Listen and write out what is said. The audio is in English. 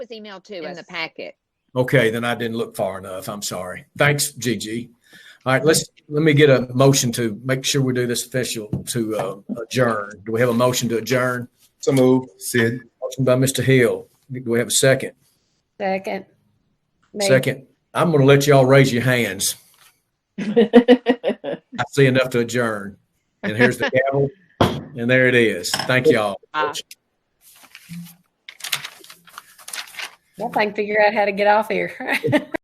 was emailed to in the Yes. packet. Okay, then I didn't look far enough. I'm sorry. Thanks, Gigi. All right, let's, let me get a motion to make sure we do this official to uh, adjourn. Do we have a motion to adjourn? So move, Sid. Motion by Mr. Hill. Do we have a second? Second. Maybe. Second, I'm going to let y'all raise your hands. I see enough to adjourn. And here's the gavel. And there it is. Thank y'all. Bye. If I can figure out how to get off here.